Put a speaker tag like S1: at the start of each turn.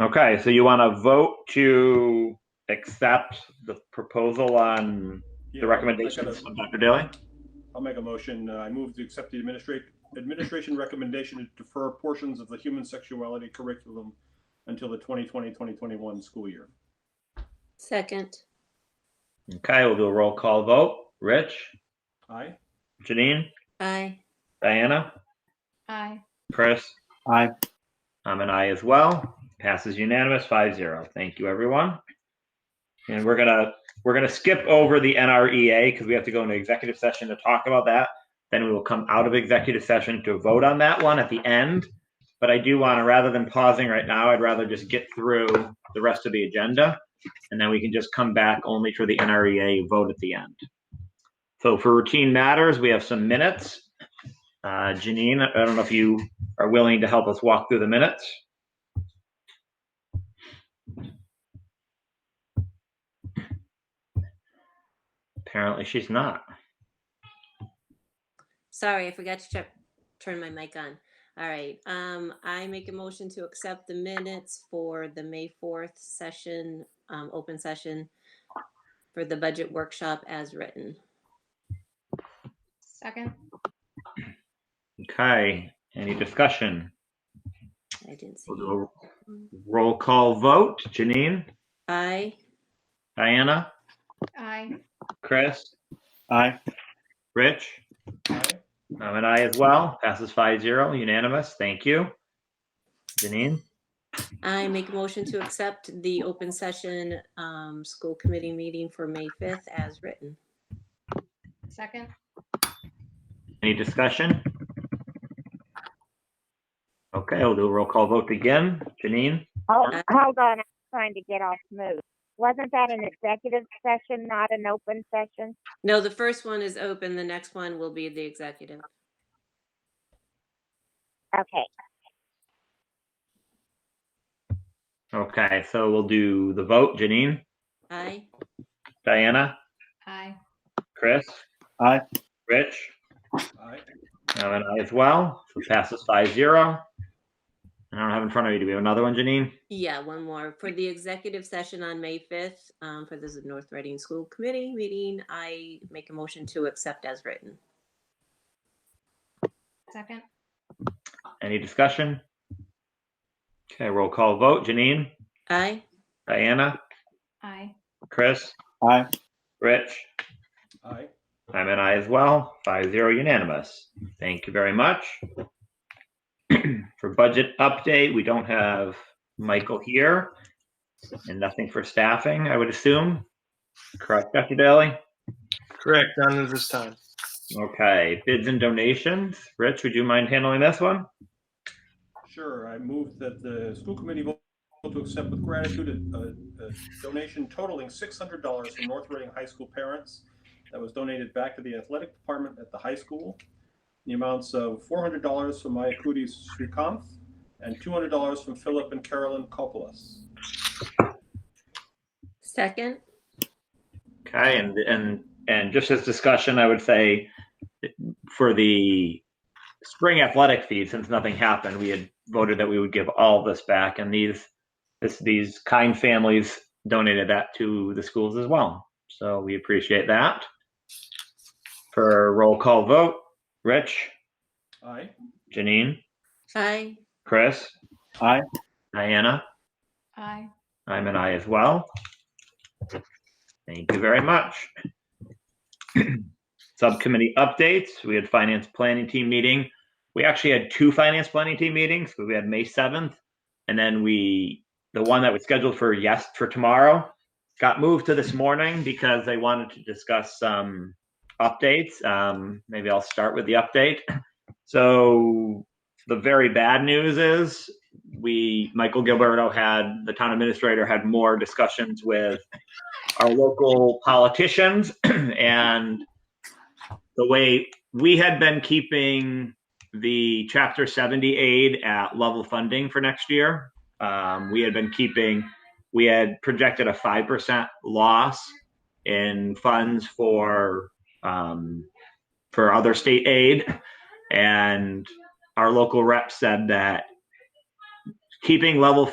S1: Okay, so you want to vote to accept the proposal on
S2: Yeah,
S1: the
S2: I'll- I
S1: recommendations
S2: gotta-
S1: from Dr. Daly?
S2: I'll make a motion. Uh, I move to accept the administrat- administration recommendation to defer portions of the human sexuality curriculum until the 2020-2021 school year.
S3: Second.
S1: Okay, we'll do a roll call vote. Rich,
S2: Aye?
S1: Janine,
S3: Aye.
S1: Diana,
S4: Aye.
S1: Chris? Aye. I'm an aye as well. Passes unanimous, five zero. Thank you, everyone. And we're gonna, we're gonna skip over the NREA because we have to go into executive session to talk about that. Then we will come out of executive session to vote on that one at the end. But I do want to, rather than pausing right now, I'd rather just get through the rest of the agenda. And then we can just come back only for the NREA vote at the end. So for routine matters, we have some minutes. Uh, Janine, I don't know if you are willing to help us walk through the minutes. Apparently, she's not.
S3: Sorry, I forgot to check, turn my mic on. All right, um, I make a motion to accept the minutes for the May fourth session, um, open session for the budget workshop as written.
S4: Second.
S1: Okay. Any discussion?
S3: I didn't see.
S1: We'll do a roll call vote. Janine,
S3: Aye.
S1: Diana,
S4: Aye.
S1: Chris,
S5: Aye.
S1: Rich.
S2: Aye?
S1: I'm an aye as well. Passes five zero, unanimous. Thank you. Janine,
S3: I make a motion to accept the open session, um, school committee meeting for May fifth as written.
S4: Second.
S1: any discussion? Okay, we'll do a roll call vote again. Janine?
S6: Oh,
S3: Uh,
S6: hold on, I'm trying to get off mute. Wasn't that an executive session, not an open session?
S3: No, the first one is open, the next one will be the executive.
S6: Okay,
S1: Okay, so we'll do the vote. Janine,
S3: Aye.
S1: Diana,
S4: Aye.
S1: Chris.
S5: Aye.
S1: Rich,
S2: Aye?
S1: I'm an aye as well. So passes five zero. I don't have in front of you. Do we have another one, Janine?
S3: Yeah, one more. For the executive session on May 5th, um, for this North Reading School Committee meeting, I make a motion to accept as written.
S4: Second.
S1: Any discussion? Okay, roll call vote. Janine,
S3: Aye.
S1: Diana,
S4: Aye.
S1: Chris,
S5: Aye.
S1: Rich.
S2: Aye?
S1: I'm an aye as well. Five zero unanimous. Thank you very much. for budget update, we don't have Michael here and nothing for staffing, I would assume. Correct, Dr. Daly?
S5: Correct. None at this time.
S1: Okay, bids and donations. Rich, would you mind handling this one?
S2: Sure, I move that the school committee vote to accept with gratitude a, a donation totaling six hundred dollars from North Reading High School parents that was donated back to the athletic department at the high school. The amounts of four hundred dollars from Iacutis Srikanth and two hundred dollars from Philip and Carolyn Kopolis.
S3: Second?
S1: Okay, and and and just as discussion, I would say for the spring athletic feed, since nothing happened, we had voted that we would give all this back, and these this these kind families donated that to the schools as well. So we appreciate that. For roll call vote, Rich,
S2: Aye?
S1: Janine,
S3: Aye.
S1: Chris,
S5: Aye.
S1: Diana.
S4: Aye.
S1: I'm an I as well. Thank you very much. Subcommittee updates, we had finance planning team meeting. We actually had two finance planning team meetings, because we had May 7th. And then we, the one that was scheduled for yes, for tomorrow, got moved to this morning because they wanted to discuss some updates. Um, maybe I'll start with the update. So the very bad news is we Michael Gilberto had the town administrator had more discussions with our local politicians and the way we had been keeping the chapter 70 aid at level funding for next year um, we had been keeping we had projected a 5% loss in funds for um, for other state aid and our local rep said that keeping level